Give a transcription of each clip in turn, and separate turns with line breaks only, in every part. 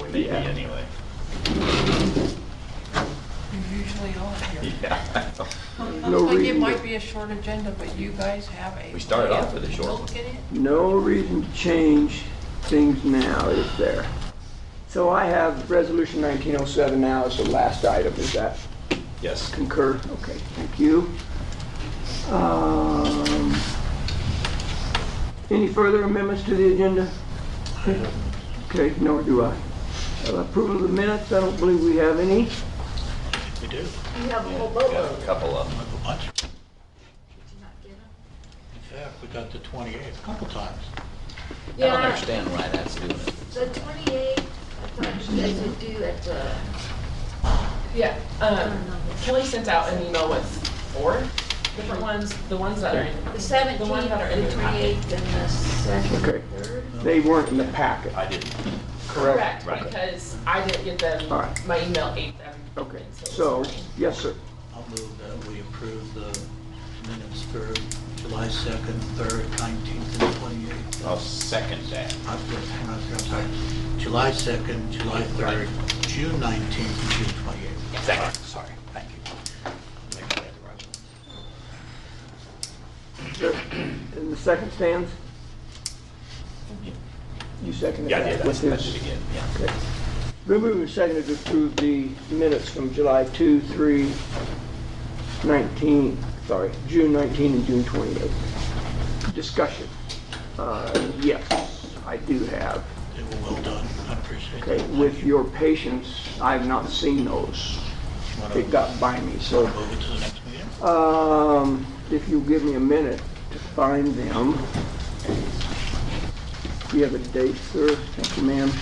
would be
Yeah.
anyway.
You're usually on here.
Yeah.
Looks
No
like it
reason
might
to-
be a short agenda, but you guys have a.
We started off with a short one.
Look at it.
No reason to change things now, is there? So I have resolution 1907 now as the last item, is that
Yes.
concur? Okay, thank you. Um, Any further amendments to the agenda? Okay, nor do I. Uh, Approval of the minutes, I don't believe we have any.
We do.
You have a whole
Got
boatload.
a couple of them.
Like a bunch.
Did you not get 'em?
Yeah, we got the 28th, a couple times.
I don't
Yeah,
understand why that's doing it.
the 28th, I thought you guys would do at the,
Yeah, um,
don't know.
Kelly sent out an email with four different ones, the ones that are in.
the
The one that are
17th,
in
the
the packet.
28th, and the second,
Okay.
third.
They weren't in the packet.
I didn't.
Correct,
Right.
because I didn't get them,
All right.
my email ate them.
Okay,
and it was
so,
fine.
yes, sir.
I'll move that we approve the minutes for July 2nd, 3rd, 19th, and 28th.
I'll second that.
I'm hang on, I'm sorry. July 2nd, July 3rd, June 19th, and June 28th.
Second.
Sorry, thank you. Make sure I have the right one.
And the second stands? You seconded
Yeah, I
that?
did. I
with
seconded
his-
it again, yeah.
Okay. Been moved and seconded to approve the minutes from July 2, 3, 19, sorry, June 19 and June 28. Discussion. Uh, Yes, I do have.
They were well done, I appreciate
Okay,
it.
with your patience, I've not seen those. It got by me, so.
Move it to the next meeting?
Um, if you give me a minute to find them. Do you have a date, sir? Thank you, ma'am.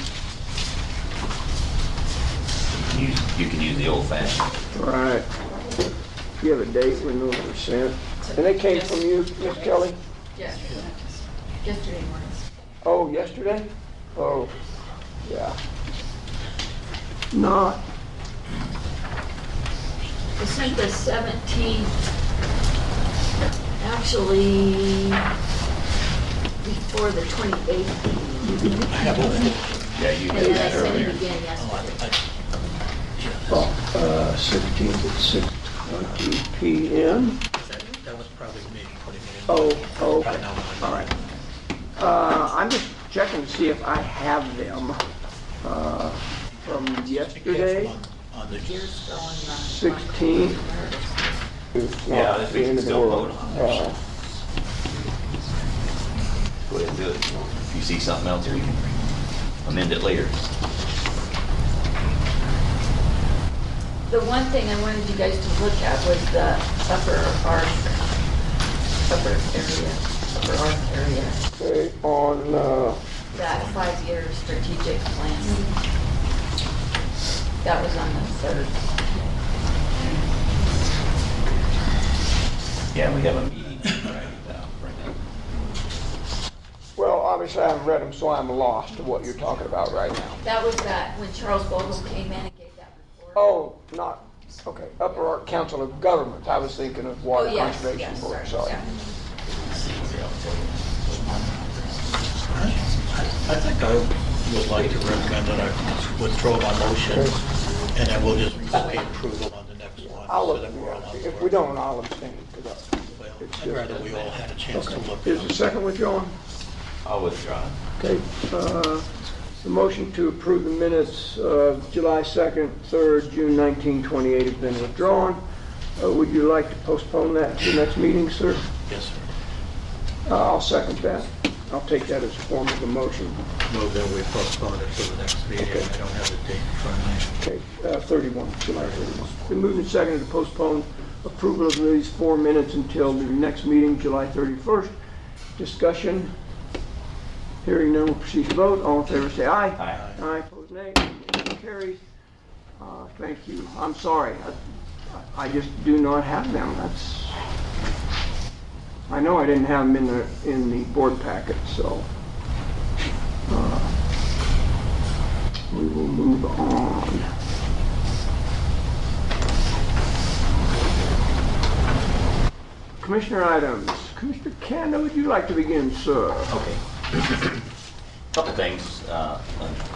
You you can use the old fashioned.
All right. Do you have a date when those were sent? And they came from you, Miss Kelly?
Yes, yesterday morning.
Oh, yesterday? Oh, yeah. Not,
I sent the 17th, actually, before the 28th,
I have all four.
Yeah, you
and
did
then I
that
sent
earlier.
it again
Oh,
yesterday.
I- I-
oh, uh, 16th at 6:20 PM.
That that was probably me putting it in.
Oh, oh,
I
okay.
know.
All right. Uh, I'm just checking to see if I have them, uh, from yesterday,
On- On the,
Yours going on.
16th. It's not
Yeah, this
the
we
end
can
of the
still
world.
vote on
Uh,
Go ahead and do it. If you see something else, we can amend it later.
The one thing I wanted you guys to look at was the upper arc, upper area, upper arc area,
Okay, on, uh,
that five-year strategic plan. That was on the third.
Yeah, we have a meeting. Right, uh, bring that.
well, obviously I haven't read them, so I'm lost to what you're talking about right now.
That was that, when Charles Vogel came in and gave that report.
Oh, not, okay, Upper Ark Council of Governments. I was thinking of Water
Oh, yes,
Conservation
yes,
Board,
sorry,
sorry.
yeah.
I I think I would like to recommend that I withdraw my motion, and then we'll just revoke approval on the next one.
I'll
so
look,
that we're all on the
if
board.
we don't, I'll abstain, 'cause I-
Well,
it's
I'd
just-
rather we all had a chance to look.
Is the second withdrawn?
I'll withdraw.
Okay, uh, the motion to approve the minutes of July 2nd, 3rd, June 19, 28 has been withdrawn. Uh, Would you like to postpone that to the next meeting, sir?
Yes, sir.
Uh, I'll second that. I'll take that as a form of a motion.
Move that we postpone it to the next meeting.
Okay.
I don't have the date in front of
Okay, uh, 31, July 31. Been moved and seconded to postpone approval of these four minutes until the next meeting, July 31st. Discussion, hearing none, we'll proceed to vote. All in favor, say aye.
Aye.
Aye, opposed nay, motion carries. Uh, Thank you, I'm sorry, I- I just do not have them, that's, I know I didn't have them in the, in the board packet, so. uh, We will move on. Commissioner items, Commissioner Kanda, would you like to begin, sir?
Okay. Couple things. uh,